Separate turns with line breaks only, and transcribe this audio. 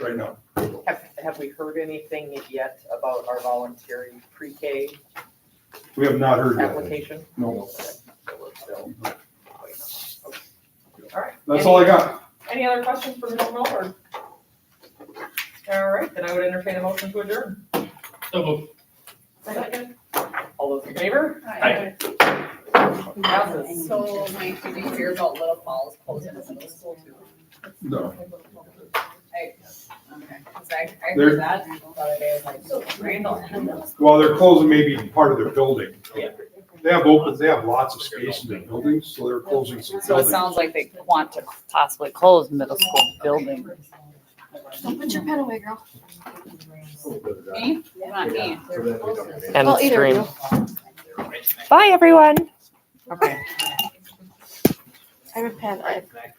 right now.
Have, have we heard anything yet about our voluntary pre-K
We have not heard yet.
application?
No.
All right.
That's all I got.
Any other questions for Mr. Miller? All right, then I would entertain a motion to adjourn.
So moved.
Second. All those in favor?
Aye.
Passes.
So Mike, did you hear about Little Falls closing the middle school too?
No.
I, okay, 'cause I, I
There-
heard that the other day, I was like,
oh.
Randall.
Well, they're closing maybe part of their building. They have open, they have lots of space in their buildings, so they're closing some
So it
buildings.
sounds like they want to possibly close middle school building.
Don't put your pen away, girl.
Me? Not me.
End
Well, either
stream.
of
Bye, everyone. Okay.
I have a pen. I have